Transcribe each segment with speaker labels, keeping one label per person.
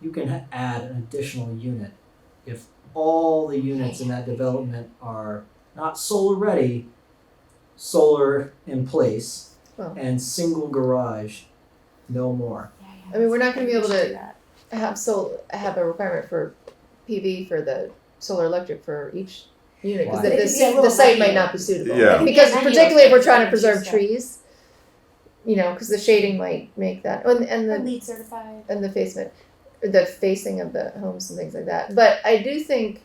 Speaker 1: you can ha- add an additional unit if all the units in that development are not solar ready, solar in place,
Speaker 2: Well.
Speaker 1: and single garage, no more.
Speaker 2: I mean, we're not gonna be able to have sol, have a requirement for PV for the solar electric for each unit, cause
Speaker 1: Why?
Speaker 2: the,
Speaker 3: It could
Speaker 2: the,
Speaker 3: be a
Speaker 2: the
Speaker 3: little
Speaker 2: site might
Speaker 3: venue.
Speaker 2: not be suitable.
Speaker 4: Yeah. It could
Speaker 3: be a
Speaker 2: Because
Speaker 3: venue
Speaker 2: particularly if we're
Speaker 3: that's
Speaker 2: trying to
Speaker 3: like
Speaker 2: preserve
Speaker 3: two-step.
Speaker 2: trees, you know, cause the shading might make that, oh, and, and the
Speaker 3: Or LEED certified.
Speaker 2: and the basement, the facing of the homes and things like that. But I do think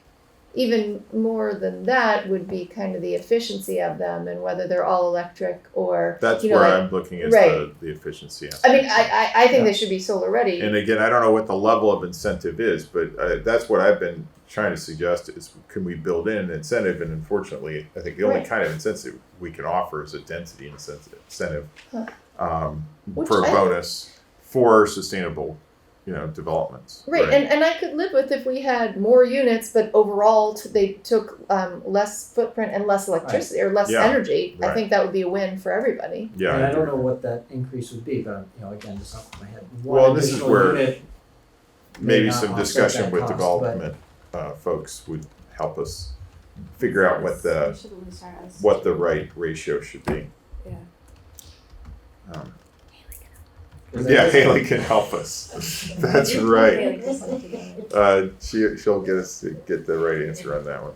Speaker 2: even more than that would be kind of the efficiency of them and whether they're all electric or
Speaker 4: That's
Speaker 2: you know,
Speaker 4: where
Speaker 2: like-
Speaker 4: I'm looking at
Speaker 2: right.
Speaker 4: the, the efficiency. Aspect.
Speaker 2: I mean, I, I, I think they should be solar ready.
Speaker 4: and again, I don't know what the level of incentive is, but uh, that's what I've been trying to suggest is can we build in an incentive? And unfortunately, I think the only
Speaker 2: Right.
Speaker 4: kind of incentive we can offer is a density incentive, incentive
Speaker 2: Huh.
Speaker 4: um,
Speaker 2: Which
Speaker 4: for a
Speaker 2: I-
Speaker 4: bonus for sustainable, you know, developments.
Speaker 2: Right, and, and I could live with if we had more units, but overall t- they took um, less footprint and less electricity or less
Speaker 4: Yeah,
Speaker 2: energy. I
Speaker 4: right.
Speaker 2: think that would be a win for everybody.
Speaker 4: yeah,
Speaker 1: and I
Speaker 4: agree.
Speaker 1: don't know what that increase would be, but I'm, you know, again, just off the top of my head. One
Speaker 4: Well, this is
Speaker 1: additional
Speaker 4: where
Speaker 1: unit may
Speaker 4: maybe
Speaker 1: not
Speaker 4: some
Speaker 1: uh, offset
Speaker 4: discussion
Speaker 1: that
Speaker 4: with
Speaker 1: cost, but-
Speaker 4: development uh, folks would help us figure out what the
Speaker 3: We should lose our eyes.
Speaker 4: what the right ratio should be.
Speaker 3: Yeah.
Speaker 4: Um,
Speaker 1: 'cause
Speaker 4: yeah,
Speaker 1: that
Speaker 4: Haley can help us. That's right. Uh, she she'll get us to get the right answer on that one.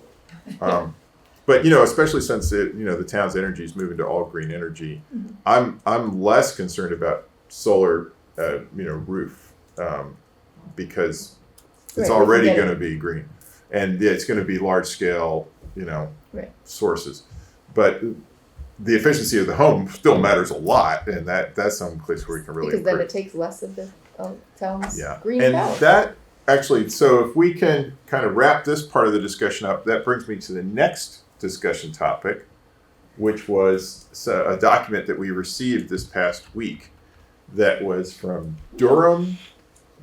Speaker 4: Um, but you know, especially since it, you know the town's energy is moving to all green energy,
Speaker 2: Mhm.
Speaker 4: I'm I'm less concerned about solar, uh, you know, roof um, because
Speaker 2: Right, we
Speaker 4: it's
Speaker 2: can
Speaker 4: already
Speaker 2: get it.
Speaker 4: going to be green, and yeah, it's going to be large scale, you know,
Speaker 2: Right.
Speaker 4: sources. But the efficiency of the home still matters a lot, and that that's some place where we can really
Speaker 2: because then
Speaker 4: improve.
Speaker 2: it takes less of the um, town's
Speaker 4: Yeah.
Speaker 2: green
Speaker 4: and
Speaker 2: power.
Speaker 4: that actually, so if we can kind of wrap this part of the discussion up, that brings me to the next discussion topic, which was so- a document that we received this past week that was from Durham,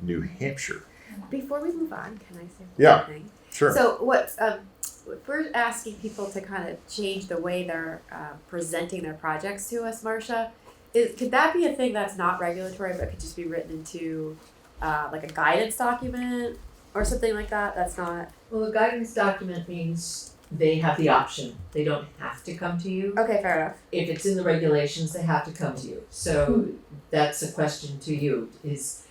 Speaker 4: New Hampshire.
Speaker 5: Before we move on, can I say one
Speaker 4: Yeah,
Speaker 5: thing?
Speaker 4: Sure.
Speaker 5: So what um, if we're asking people to kind of change the way they're uh, presenting their projects to us, Marcia. Is could that be a thing that's not regulatory but could just be written into uh, like a guidance document or something like that? That's not
Speaker 6: Well, a guidance document means they have the option, they don't have to come to you.
Speaker 5: okay. Fair enough.
Speaker 6: If it's in the regulations, they have to come to you, so that's a question to you, is,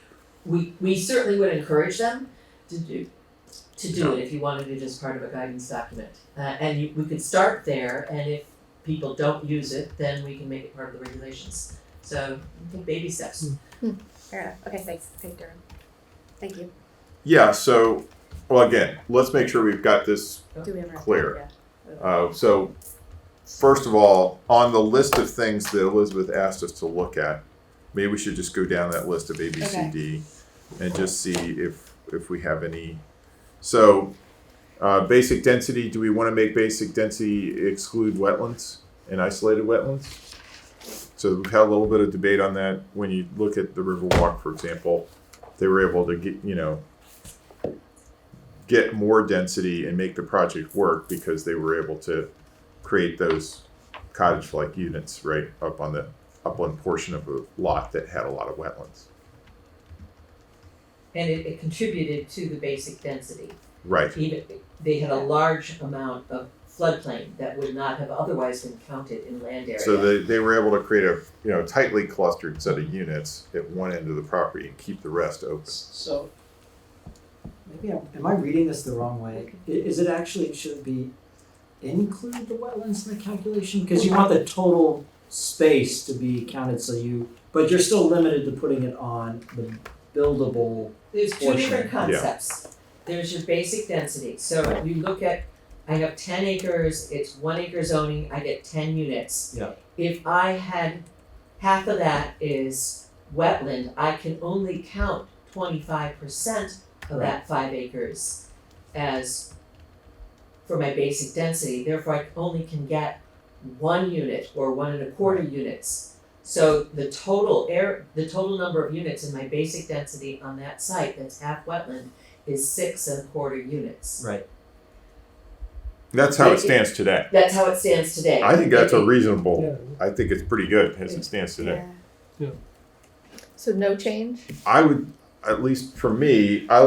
Speaker 6: we, we certainly would encourage them to do, to do it if you wanted it as part of a guidance document. Uh, and you, we could start there, and if people don't use it, then we can make it part of the regulations, so, I think baby steps.
Speaker 5: Fair enough. Okay. Thanks. Thank Durham. Thank you.
Speaker 4: Yeah, so, well, again, let's make sure we've got this
Speaker 5: Do we have a-
Speaker 4: Clear.
Speaker 5: Yeah.
Speaker 4: Uh, so, first of all, on the list of things that Elizabeth asked us to look at, maybe we should just go down that list of A, B, C,
Speaker 5: Okay.
Speaker 4: D, and just see if if we have any. So, uh, basic density. Do we want to make basic density exclude wetlands and isolated wetlands? So we've had a little bit of debate on that. When you look at the Riverwalk, for example, they were able to get you know get more density and make the project work because they were able to create those cottage-like units right up on the upland portion of a lot that had a lot of wetlands.
Speaker 6: And it, it contributed to the basic density.
Speaker 4: Right.
Speaker 6: even, they had a large amount of floodplain that would not have otherwise been counted in land area.
Speaker 4: So they, they were able to create a you know tightly clustered set of units at one end of the property and keep the rest open.
Speaker 1: So, maybe I'm, am I reading this the wrong way? I- Is it actually, should it be include the wetlands in the calculation? Because you want the total space to be counted, so you, but you're still limited to putting it on the buildable.
Speaker 6: There's two different
Speaker 4: Portion, yeah.
Speaker 6: concepts. There's your basic density, so you look at, I have ten acres, it's one acre zoning, I get ten units.
Speaker 1: Yeah.
Speaker 6: If I had, half of that is wetland, I can only count twenty-five percent of that five acres as for my basic density, therefore I only can get one unit or one and a quarter units. So the total air, the total number of units in my basic density on that site that's half wetland is six and a quarter units.
Speaker 1: Right.
Speaker 4: That's how it stands today.
Speaker 6: That's how it stands today.
Speaker 4: I think that's a
Speaker 6: If-
Speaker 4: reasonable. I think it's pretty good as it stands today.
Speaker 5: Yeah.
Speaker 2: so no change.
Speaker 4: I would at least for me, I